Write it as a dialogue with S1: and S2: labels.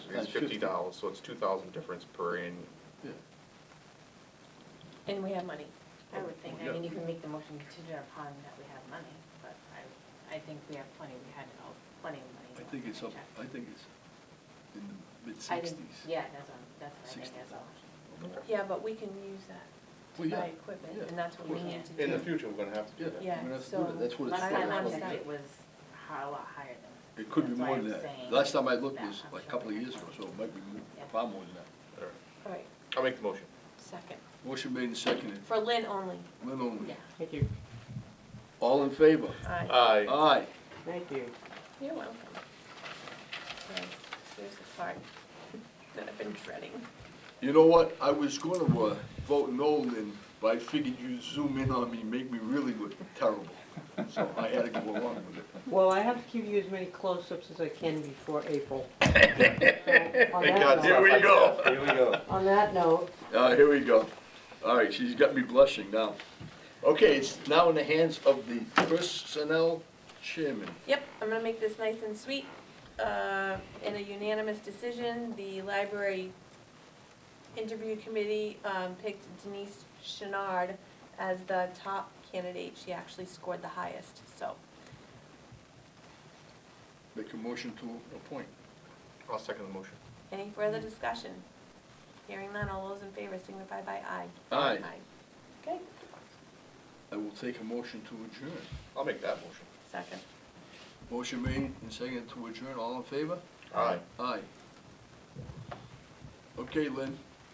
S1: It's
S2: That's
S1: fifty
S2: 50.
S1: dollars, so it's two thousand difference per annual.
S2: Yeah.
S3: And we have money, I would think. I
S1: Yeah.
S3: mean, you can make the motion contingent upon that we have money, but I, I think we have plenty, we had uh, plenty of money.
S2: I think it's up,
S3: Check.
S2: I think it's in the
S3: I think-
S2: mid-sixties.
S3: Yeah, that's what, I'm- that's what I
S2: 60.
S3: think as well.
S1: Okay.
S3: Yeah, but we can use that
S2: Well,
S3: to
S2: yeah,
S3: buy equipment,
S2: yeah,
S3: and that's
S2: of
S3: what we
S2: course.
S3: need to
S1: In
S3: do.
S1: the future, we're gonna have to do that.
S3: Yeah,
S2: I'm gonna have to do
S3: so
S2: that. That's what it's
S3: last
S2: for.
S3: time I
S2: That's what
S3: checked,
S2: it's
S3: it was hi- a lot higher than.
S2: It could be
S3: that's why
S2: more
S3: I'm
S2: than that.
S3: saying
S2: Last time I looked
S3: that
S2: was
S3: I'm
S2: like a
S3: sure
S2: couple of
S3: we
S2: years ago,
S3: have
S2: so it might be mo-
S3: Yeah.
S2: far more than that.
S1: All right.
S3: All right,
S1: I'll make the motion.
S3: second,
S2: Motion made and seconded,
S3: for Lynn only,
S2: Lynn
S3: yeah.
S2: only.
S4: Thank you,
S2: All in favor?
S3: Aye.
S1: Aye.
S2: Aye.
S4: thank you.
S3: You're welcome. Okay, Here's the part that I've been dreading.
S2: You know what, I was gonna uh, vote no, Lynn, but I figured you'd zoom in on me, make me really look terrible. So I had to go along with it.
S4: Well, I have to give you as many close-ups as I can before April. So, On
S1: Thank
S4: that
S1: God,
S4: note,
S1: here we go.
S5: Here we go.
S4: on that note,
S2: Uh, here we go. All right, she's got me blushing now. Okay, it's now in the hands of the personnel chairman.
S3: Yep, I'm gonna make this nice and sweet. Uh, In a unanimous decision, the library interview committee um, picked Denise Chenard as the top candidate. She actually scored the highest, so.
S2: Make a motion to appoint.
S1: I'll second the motion.
S3: Any further discussion? Hearing none, all those in favor signify by aye.
S2: Aye.
S3: Okay,
S2: I will take a motion to adjourn.
S1: I'll make that motion.
S3: second.
S2: Motion made and seconded to adjourn, all in favor?
S1: Aye.
S2: Aye. Okay, Lynn,